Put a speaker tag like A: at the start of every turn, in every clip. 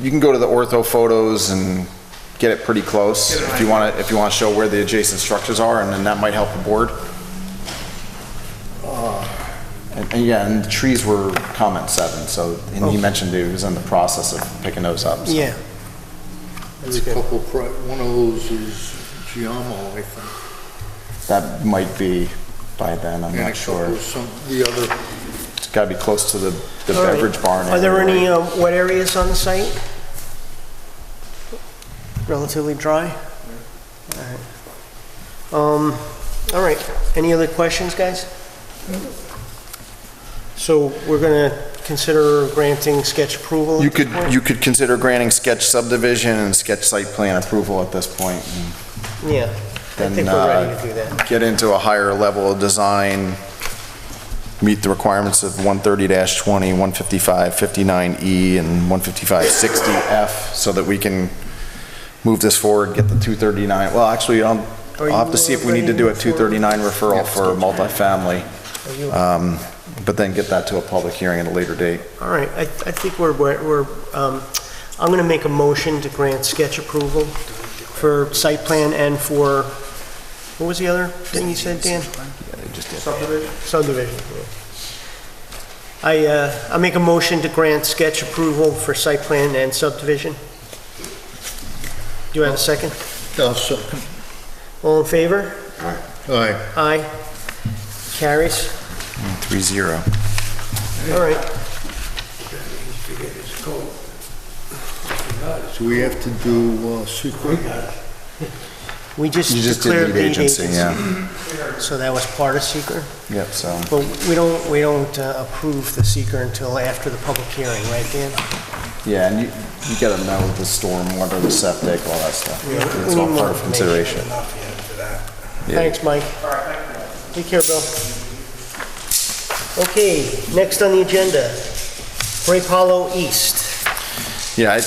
A: you can go to the ortho photos and get it pretty close if you want to, if you want to show where the adjacent structures are, and then that might help the board.
B: Uh.
A: And, and yeah, and the trees were comment seven, so, and he mentioned he was in the process of picking those up. so.
B: Yeah.
C: There's a couple, pri- one of those is Giamo, I think.
A: That might be by then, I'm
C: and a
A: not sure.
C: couple Some, the other,
A: It's got to be close to the, the
B: All right.
A: beverage barn.
B: Are there
A: area,
B: any
A: right?
B: um, wet areas on the site? Relatively dry? All right. Um, All right, any other questions, guys? So we're going to consider granting sketch approval
A: You
B: at this
A: could,
B: point?
A: you could consider granting sketch subdivision and sketch site plan approval at this point, and
B: Yeah, I
A: then,
B: think we're ready to do that.
A: uh, get into a higher level of design, meet the requirements of 130-20, 155-59E, E, and 155-60F, so that we can move this forward, get the 239, well, actually, I'll,
B: Are
A: I'll have to
B: you,
A: see
B: uh,
A: if we need to
B: ready
A: do a
B: for-
A: 239 referral for multifamily,
B: Are you-
A: um, but then get that to a public hearing at a later date.
B: All right, I, I think we're, we're, we're, um, I'm gonna make a motion to grant sketch approval for site plan and for, what was the other thing you said, Dan? Subdivision? Subdivision, yeah. I, uh, I make a motion to grant sketch approval for site plan and subdivision. Do you have a second?
C: uh, second.
B: All in favor?
C: All right,
B: Aye. Carries?
A: 3-0.
B: All right,
C: so we have to do uh, secret.
B: we just
A: You just did
B: declared
A: lead
B: lead
A: agency,
B: agency,
A: yeah.
B: so that was part of secret.
A: Yep, so.
B: But we don't, we don't uh, approve the seeker until after the public hearing, right, Dan?
A: Yeah, and you, you gotta know the storm, water, the septic, all that stuff.
B: Yeah.
A: It's all part of consideration. Yeah.
B: Thanks, Mike. Take care, Bill. Okay, next on the agenda, Grape Hollow East.
A: Yeah, I,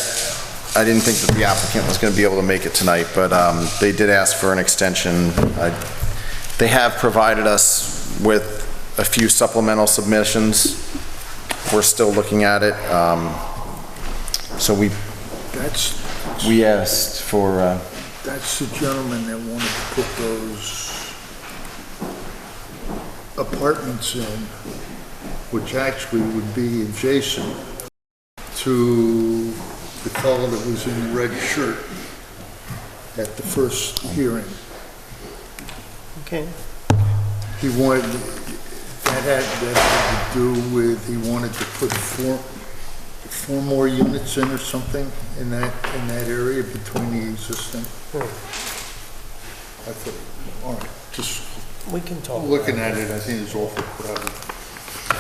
A: I didn't think that the applicant was gonna be able to make it tonight, but, um, they did ask for an extension. I- They have provided us with a few supplemental submissions. We're still looking at it. Um, so we,
C: That's,
A: we asked for, uh,
C: that's the gentleman that wanted to put those apartments in, which actually would be adjacent to the fellow that was in the red shirt at the first hearing.
B: Okay,
C: He wanted, that had, that had to do with, he wanted to put four, four more units in or something in that, in that area between the existing. I thought, all right, just
B: we can talk.
C: looking at it, I think it's awful crowded.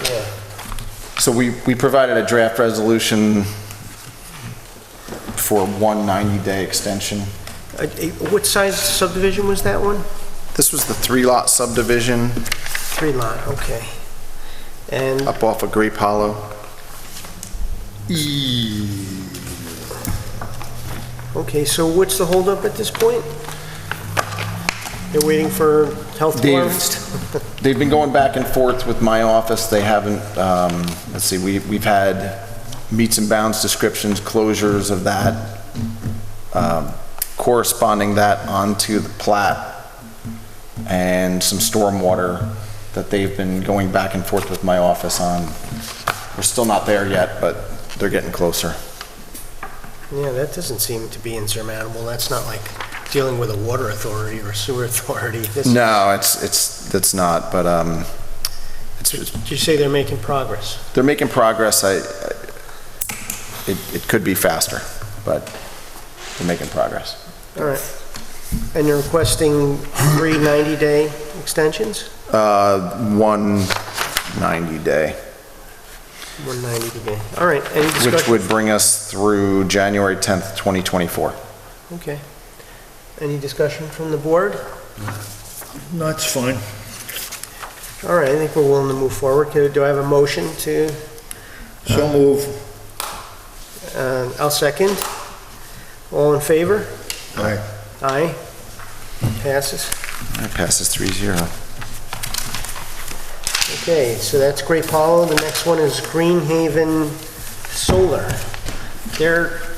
B: Yeah.
A: So we, we provided a draft resolution for one 90-day extension.
B: Uh, eh, What size subdivision was that one?
A: This was the three-lot subdivision
B: Three lot, okay. And,
A: up off of Grape Hollow.
C: E,
B: okay, so what's the holdup at this point? They're waiting for health
A: Dave.
B: departments?
A: They've been going back and forth with my office. They haven't, um, let's see, we, we've had meets and bounds descriptions, closures of that, um, corresponding that onto the plat and some stormwater that they've been going back and forth with my office on. We're still not there yet, but they're getting closer.
B: Yeah, that doesn't seem to be insurmountable. That's not like dealing with a water authority or sewer authority. This-
A: No, it's, it's, it's not, but, um, it's,
B: Did
A: it's-
B: you say they're making progress?
A: they're making progress. I, I- it, it could be faster, but they're making progress.
B: All right. And you're requesting three 90-day extensions?
A: Uh, one 90-day,
B: One 90-day. All right, any
A: which
B: discussion?
A: would bring us through January 10th, 2024.
B: Okay. Any discussion from the board?
C: No, it's fine.
B: All right, I think we're willing to move forward. Could- Do I have a motion to,
C: So move.
B: uh, I'll second. All in favor?
C: Aye.
B: Aye. Passes.
A: That passes 3-0.
B: Okay, so that's Grape Hollow. The next one is Green Haven Solar. They're